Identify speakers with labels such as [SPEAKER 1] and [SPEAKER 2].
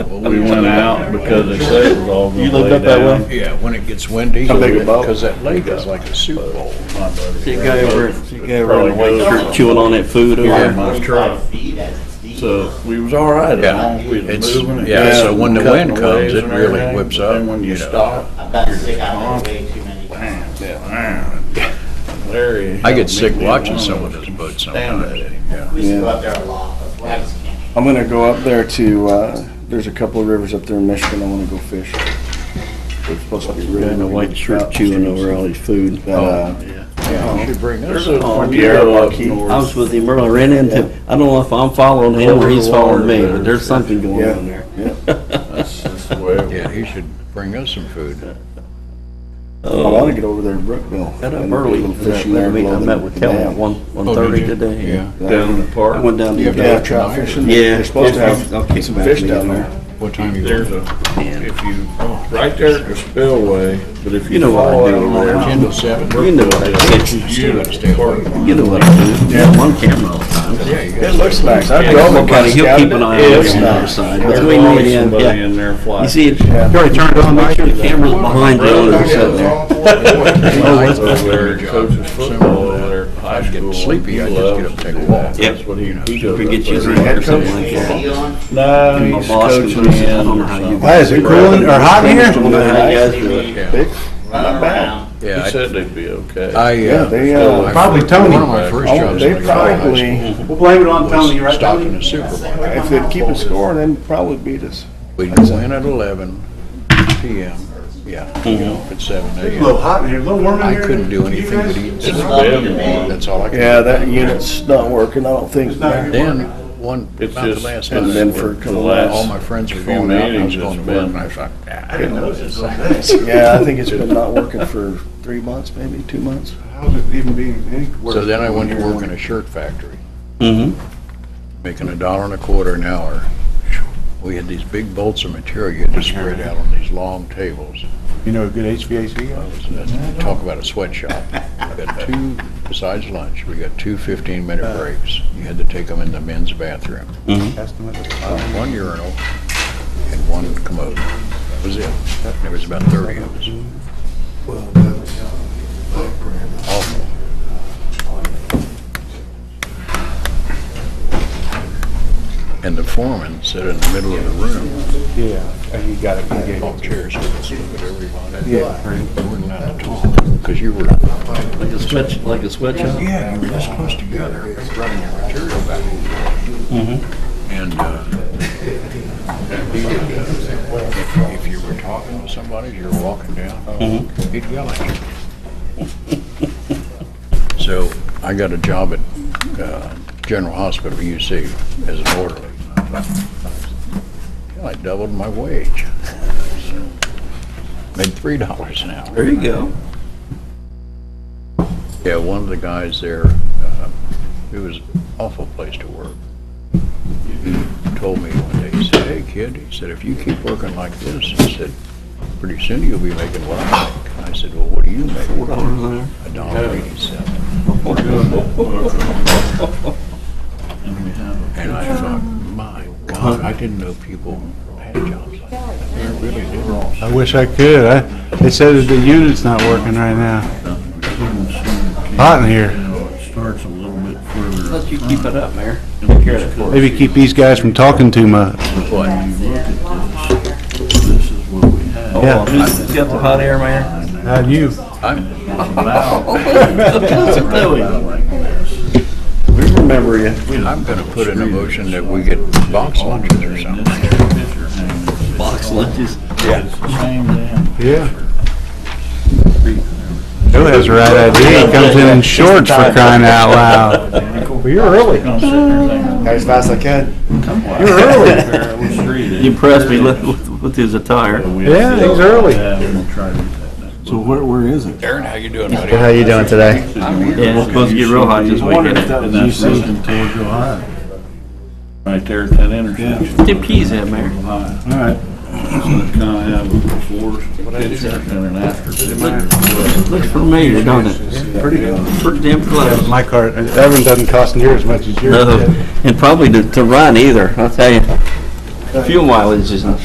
[SPEAKER 1] We went out because they said it was all
[SPEAKER 2] You
[SPEAKER 1] gonna
[SPEAKER 2] looked
[SPEAKER 1] lay
[SPEAKER 2] up that
[SPEAKER 1] down.
[SPEAKER 2] way?
[SPEAKER 3] Yeah, when it gets windy,
[SPEAKER 2] How big a boat?
[SPEAKER 3] because that lake is like a soup bowl.
[SPEAKER 2] She go over, she go over and wait, you're chewing on that food over
[SPEAKER 3] Yeah.
[SPEAKER 2] there.
[SPEAKER 1] My truck,
[SPEAKER 4] feet as it's deep.
[SPEAKER 1] so we was all right as long as we
[SPEAKER 3] It's-
[SPEAKER 1] was moving. and
[SPEAKER 3] yeah, so when the
[SPEAKER 1] cutting
[SPEAKER 3] wind comes,
[SPEAKER 1] waves
[SPEAKER 3] it
[SPEAKER 1] and
[SPEAKER 3] really
[SPEAKER 1] everything,
[SPEAKER 3] whips
[SPEAKER 1] but then
[SPEAKER 3] up,
[SPEAKER 1] When you
[SPEAKER 3] you know.
[SPEAKER 1] stop.
[SPEAKER 4] I've gotten sick out of it way too many times.
[SPEAKER 1] Larry.
[SPEAKER 3] I get sick
[SPEAKER 1] helped me
[SPEAKER 3] watching
[SPEAKER 1] one
[SPEAKER 3] some of
[SPEAKER 1] us.
[SPEAKER 3] those boats
[SPEAKER 1] Damn
[SPEAKER 3] sometimes.
[SPEAKER 1] it.
[SPEAKER 3] Yeah.
[SPEAKER 4] We used to go up there a lot, but we just can't.
[SPEAKER 2] I'm gonna go up there to, uh, there's a couple of rivers up there in Michigan, I wanna go fish. They're supposed to be really.
[SPEAKER 5] Guy in a white shirt chewing over all his food.
[SPEAKER 2] But, uh,
[SPEAKER 3] You should bring us.
[SPEAKER 1] There's a
[SPEAKER 5] Oh,
[SPEAKER 1] tornado up
[SPEAKER 2] Marquis.
[SPEAKER 1] north.
[SPEAKER 5] I was with him earlier, ran
[SPEAKER 2] Yeah.
[SPEAKER 5] into, I don't know if I'm following him or he's following me, but there's something going
[SPEAKER 2] Yeah.
[SPEAKER 5] on there.
[SPEAKER 1] That's just the way it was.
[SPEAKER 3] Yeah, he should bring us some food.
[SPEAKER 2] I wanna get over there in Brookville.
[SPEAKER 5] Got up
[SPEAKER 2] and do a
[SPEAKER 5] early,
[SPEAKER 2] little
[SPEAKER 5] for that
[SPEAKER 2] fishing there
[SPEAKER 5] meeting. I
[SPEAKER 2] below
[SPEAKER 5] met
[SPEAKER 2] the
[SPEAKER 5] with Kelly at
[SPEAKER 2] dam.
[SPEAKER 5] one, one thirty today.
[SPEAKER 3] Oh, Yeah.
[SPEAKER 1] Down in the
[SPEAKER 5] I
[SPEAKER 1] park.
[SPEAKER 5] went down. to
[SPEAKER 3] You
[SPEAKER 5] the
[SPEAKER 2] Yeah,
[SPEAKER 3] have
[SPEAKER 2] trout fishing.
[SPEAKER 5] Yeah.
[SPEAKER 2] They're supposed to have
[SPEAKER 5] I'll keep some
[SPEAKER 2] fish down there.
[SPEAKER 3] What time you
[SPEAKER 1] There's
[SPEAKER 3] go?
[SPEAKER 1] a, if you, right there at the spillway, but if you
[SPEAKER 5] You know what I
[SPEAKER 1] fall
[SPEAKER 5] do
[SPEAKER 1] out
[SPEAKER 5] over there.
[SPEAKER 1] on
[SPEAKER 3] Ten to seven?
[SPEAKER 5] You know what I do.
[SPEAKER 1] you
[SPEAKER 3] gotta stay away.
[SPEAKER 5] You know what I do. I'm on camera all the time.
[SPEAKER 3] Yeah, you
[SPEAKER 2] It
[SPEAKER 3] got
[SPEAKER 2] looks nice. I've
[SPEAKER 1] Yeah,
[SPEAKER 2] drove
[SPEAKER 5] Somebody,
[SPEAKER 2] by.
[SPEAKER 5] he'll keep an eye on
[SPEAKER 2] It's
[SPEAKER 5] it on the other
[SPEAKER 2] nice.
[SPEAKER 5] side.
[SPEAKER 1] There's
[SPEAKER 5] Between
[SPEAKER 1] always
[SPEAKER 5] me and him,
[SPEAKER 1] somebody
[SPEAKER 5] yeah.
[SPEAKER 1] in there
[SPEAKER 5] You
[SPEAKER 1] flying.
[SPEAKER 5] see, it- you already turned on, make sure the camera's behind you and it's sitting there.
[SPEAKER 1] Over
[SPEAKER 3] that's-
[SPEAKER 1] there, coaches football over there at high
[SPEAKER 3] I'd get
[SPEAKER 1] school.
[SPEAKER 3] sleepy,
[SPEAKER 1] He
[SPEAKER 3] I'd just get
[SPEAKER 1] loves
[SPEAKER 3] up
[SPEAKER 1] to
[SPEAKER 3] and take a
[SPEAKER 1] do that.
[SPEAKER 3] walk.
[SPEAKER 1] That's what he, he does.
[SPEAKER 5] We
[SPEAKER 1] up
[SPEAKER 5] get you a
[SPEAKER 1] there.
[SPEAKER 5] drink or something like
[SPEAKER 4] Is
[SPEAKER 5] that.
[SPEAKER 4] he on?
[SPEAKER 1] No,
[SPEAKER 5] My
[SPEAKER 1] he's
[SPEAKER 5] boss
[SPEAKER 1] coaching
[SPEAKER 5] comes in,
[SPEAKER 1] in
[SPEAKER 5] I don't know
[SPEAKER 1] or
[SPEAKER 5] how you
[SPEAKER 1] something.
[SPEAKER 5] guys- Why
[SPEAKER 2] is it cooling or hot in here?
[SPEAKER 5] I don't know how you guys do it.
[SPEAKER 3] Yeah.
[SPEAKER 4] Run around.
[SPEAKER 3] Yeah,
[SPEAKER 1] He
[SPEAKER 3] I-
[SPEAKER 1] said they'd be okay.
[SPEAKER 3] I,
[SPEAKER 2] Yeah,
[SPEAKER 3] uh.
[SPEAKER 2] they,
[SPEAKER 3] still-
[SPEAKER 2] uh,
[SPEAKER 3] I-
[SPEAKER 2] Probably Tony.
[SPEAKER 3] One of my first
[SPEAKER 2] Oh,
[SPEAKER 3] jobs.
[SPEAKER 2] they
[SPEAKER 3] when I got out of high
[SPEAKER 2] probably-
[SPEAKER 3] school
[SPEAKER 5] We'll blame it on
[SPEAKER 3] was
[SPEAKER 5] Tony, right,
[SPEAKER 3] Stopping in
[SPEAKER 5] Tony?
[SPEAKER 3] the supermarket.
[SPEAKER 2] If they'd keep a score, then they'd probably beat us.
[SPEAKER 3] We'd go in at eleven PM, yeah, you know, at seven AM.
[SPEAKER 5] hot in here, a little warm
[SPEAKER 3] I couldn't do anything but eat
[SPEAKER 4] Just
[SPEAKER 3] dinner.
[SPEAKER 4] love him, man.
[SPEAKER 3] That's all I could. do.
[SPEAKER 2] Yeah, that unit's not working, I don't think.
[SPEAKER 3] Then, one,
[SPEAKER 1] It's
[SPEAKER 3] about the
[SPEAKER 1] just-
[SPEAKER 3] last
[SPEAKER 2] And
[SPEAKER 3] night,
[SPEAKER 2] then for
[SPEAKER 1] The
[SPEAKER 2] a couple
[SPEAKER 1] last-
[SPEAKER 3] all my friends were
[SPEAKER 1] few
[SPEAKER 3] going out, and I was
[SPEAKER 1] meetings
[SPEAKER 3] going to work,
[SPEAKER 1] it's been-
[SPEAKER 3] and I was like, "Ah, I didn't know this.
[SPEAKER 2] Yeah, I think it's been not working for three months, maybe two months.
[SPEAKER 6] How's it even being, any worse?
[SPEAKER 3] So then I went to work in a shirt factory,
[SPEAKER 5] Mm-hmm.
[SPEAKER 3] making a dollar and a quarter an hour. We had these big bolts of material you had to spread out on these long tables.
[SPEAKER 6] You know, a good HVAC
[SPEAKER 3] I
[SPEAKER 6] guy?
[SPEAKER 3] was- that's- Talk about a sweatshop. We got two, besides lunch, we got two
[SPEAKER 6] Uh.
[SPEAKER 3] 15-minute breaks. You had to take them in the men's bathroom. Uh,
[SPEAKER 6] Asked him at the
[SPEAKER 3] One urinal and one commode. That was it. There was about 30 of us. Awful. And the foreman sat in the middle of the room,
[SPEAKER 6] Yeah, and he got it, he gave
[SPEAKER 3] all
[SPEAKER 6] it.
[SPEAKER 3] chairs, look at everybody.
[SPEAKER 6] Yeah.
[SPEAKER 3] You weren't allowed to talk, because you were,
[SPEAKER 5] Like a switch, like a switch. huh?
[SPEAKER 3] yeah, you were this close together, running your material back and forth. And uh, he would, uh, if if you were talking to somebody, you were walking down, he'd yell at you. So I got a job at uh, General Hospital, UC, as an orderly. Well, I doubled my wage. Made three dollars an hour.
[SPEAKER 5] There you go.
[SPEAKER 3] Yeah, one of the guys there, uh, it was awful place to work. He Told me one day, he said, hey, kid, he said, if you keep working like this, he said, pretty soon you'll be making what I make. And I said, well, what do you make?
[SPEAKER 5] Four dollars an hour.
[SPEAKER 3] A dollar eighty-seven. And I thought, my God, I didn't know people had jobs like that. They really did.
[SPEAKER 6] I wish I could, I, they said that the unit's not working right now. Hot in here.
[SPEAKER 1] Starts a little bit further.
[SPEAKER 5] Let you keep it up, Mayor.
[SPEAKER 6] Maybe keep these guys from talking too much.
[SPEAKER 3] What?
[SPEAKER 1] This is what we had.
[SPEAKER 6] Yeah.
[SPEAKER 5] You got the hot air, Mayor?
[SPEAKER 6] How'd you?
[SPEAKER 3] I'm,
[SPEAKER 5] What's it doing?
[SPEAKER 2] We remember you.
[SPEAKER 3] I'm gonna put in a motion that we get box lunches or something.
[SPEAKER 5] Box lunches.
[SPEAKER 1] It's the same damn.
[SPEAKER 6] Yeah. Bill has the right idea, he comes in in shorts for crying out loud.
[SPEAKER 1] Well,
[SPEAKER 6] you're early.
[SPEAKER 2] As fast as I can.
[SPEAKER 1] You're
[SPEAKER 6] early.
[SPEAKER 5] You impressed me with- with, with his attire.
[SPEAKER 6] Yeah, he's early.
[SPEAKER 1] So
[SPEAKER 2] where, where is it?
[SPEAKER 3] Aaron, how you doing, buddy?
[SPEAKER 2] How you doing today?
[SPEAKER 5] Yeah, it's supposed to get real hot this weekend.
[SPEAKER 1] And that's Rosen till July. Right there at that intersection.
[SPEAKER 5] Where's them peas at, Mayor?
[SPEAKER 1] Alright. So it's kinda have a before picture and an after picture.
[SPEAKER 5] Looks familiar, don't it?
[SPEAKER 2] Pretty good.
[SPEAKER 5] Pretty damn close.
[SPEAKER 6] My car, that one doesn't cost near as much as yours.
[SPEAKER 5] Uh, No, and probably to, to run either, I'll tell you. Fuel mileage isn't